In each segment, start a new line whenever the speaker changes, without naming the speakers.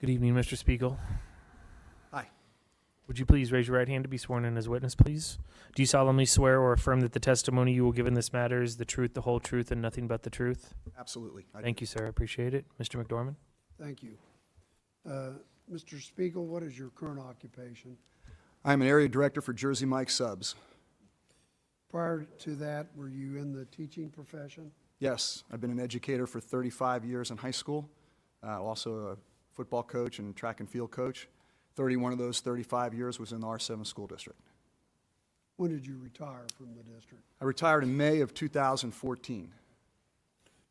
Good evening, Mr. Spiegel.
Hi.
Would you please raise your right hand to be sworn in as witness, please? Do you solemnly swear or affirm that the testimony you will give in this matter is the truth, the whole truth, and nothing but the truth?
Absolutely. I-
Thank you, sir. I appreciate it. Mr. McDormand?
Thank you. Uh, Mr. Spiegel, what is your current occupation?
I am an area director for Jersey Mike Subs.
Prior to that, were you in the teaching profession?
Yes, I've been an educator for 35 years in high school, uh, also a football coach and track and field coach. 31 of those 35 years was in the R7 school district.
When did you retire from the district?
I retired in May of 2014.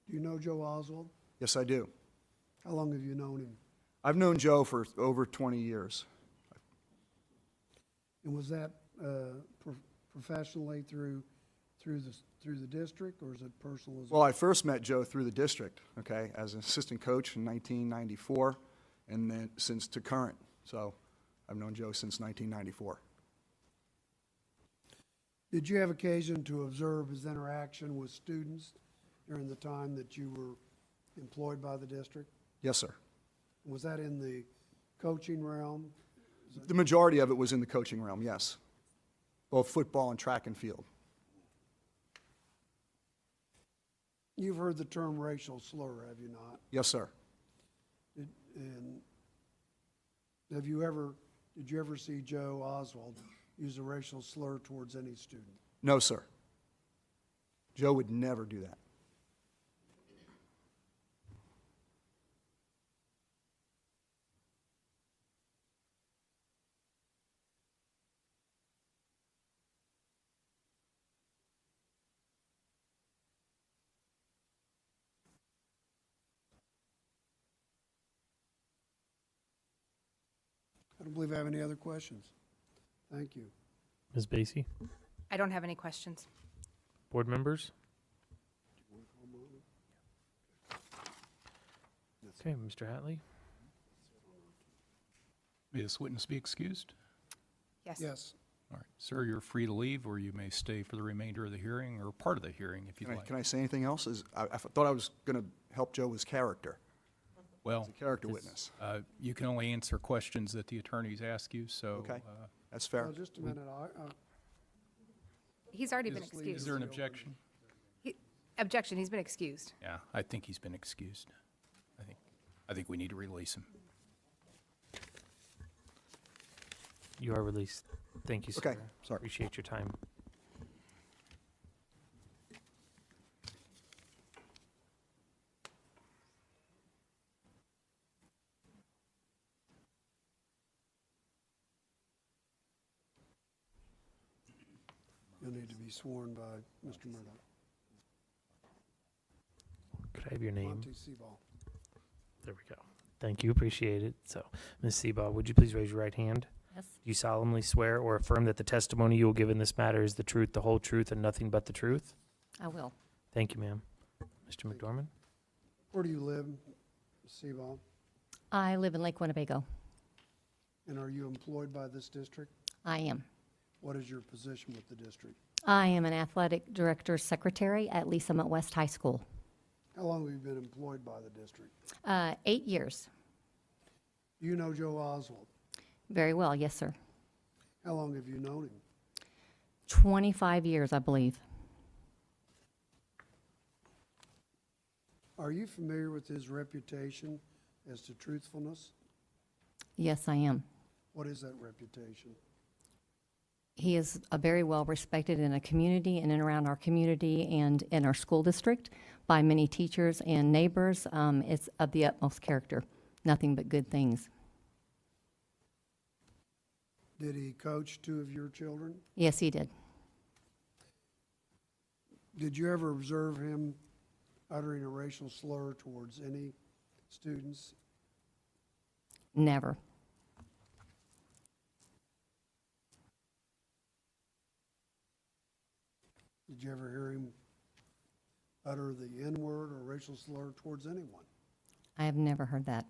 Do you know Joe Oswald?
Yes, I do.
How long have you known him?
I've known Joe for over 20 years.
And was that uh, pro- professionally through, through the, through the district, or is it personal as well?
Well, I first met Joe through the district, okay, as an assistant coach in 1994, and then since to current. So I've known Joe since 1994.
Did you have occasion to observe his interaction with students during the time that you were employed by the district?
Yes, sir.
Was that in the coaching realm?
The majority of it was in the coaching realm, yes. Both football and track and field.
You've heard the term racial slur, have you not?
Yes, sir.
Did- And have you ever, did you ever see Joe Oswald use a racial slur towards any student?
No, sir. Joe would never do that.
I don't believe I have any other questions. Thank you.
Ms. Basie?
I don't have any questions.
Board members? Okay, Mr. Hatley?
May this witness be excused?
Yes.
Yes,
All right, sir, you're free to leave, or you may stay for the remainder of the hearing or part of the hearing if you'd
Can I,
like.
can I say anything else? Is, I, I thought I was going to help Joe with character,
Well,
character witness.
uh, you can only answer questions that the attorneys ask you, so.
Okay.
uh,
That's fair.
Now, just a minute, I, I,
He's already been
Just leave it.
Is
excused.
there an objection?
He- Objection, he's been excused.
Yeah, I think he's been excused. I think, I think we need to release him.
You are released. Thank you, sir.
Okay, sorry.
Appreciate your time.
you'll need to be sworn by Mr. Murdock.
Could I have your name?
Monte Sebal.
There we go. Thank you. Appreciate it. So, Ms. Seba, would you please raise your right hand?
Yes.
Do you solemnly swear or affirm that the testimony you will give in this matter is the truth, the whole truth, and nothing but the truth?
I will.
Thank you, ma'am. Mr.
Thank you.
McDormand?
Where do you live, Sebal?
I live in Lake Winnebago.
And are you employed by this district?
I am.
What is your position with the district?
I am an athletic director's secretary at Lee Summit West High School.
How long have you been employed by the district?
Uh, eight years.
Do you know Joe Oswald?
Very well, yes, sir.
How long have you known him?
25 years, I believe.
Are you familiar with his reputation as to truthfulness?
Yes, I am.
What is that reputation?
He is a very well respected in a community and in around our community and in our school district by many teachers and neighbors. Um, it's of the utmost character. Nothing but good things.
Did he coach two of your children?
Yes, he did.
Did you ever observe him uttering a racial slur towards any students?
Never.
Did you ever hear him utter the N word or racial slur towards anyone?
I have never heard that.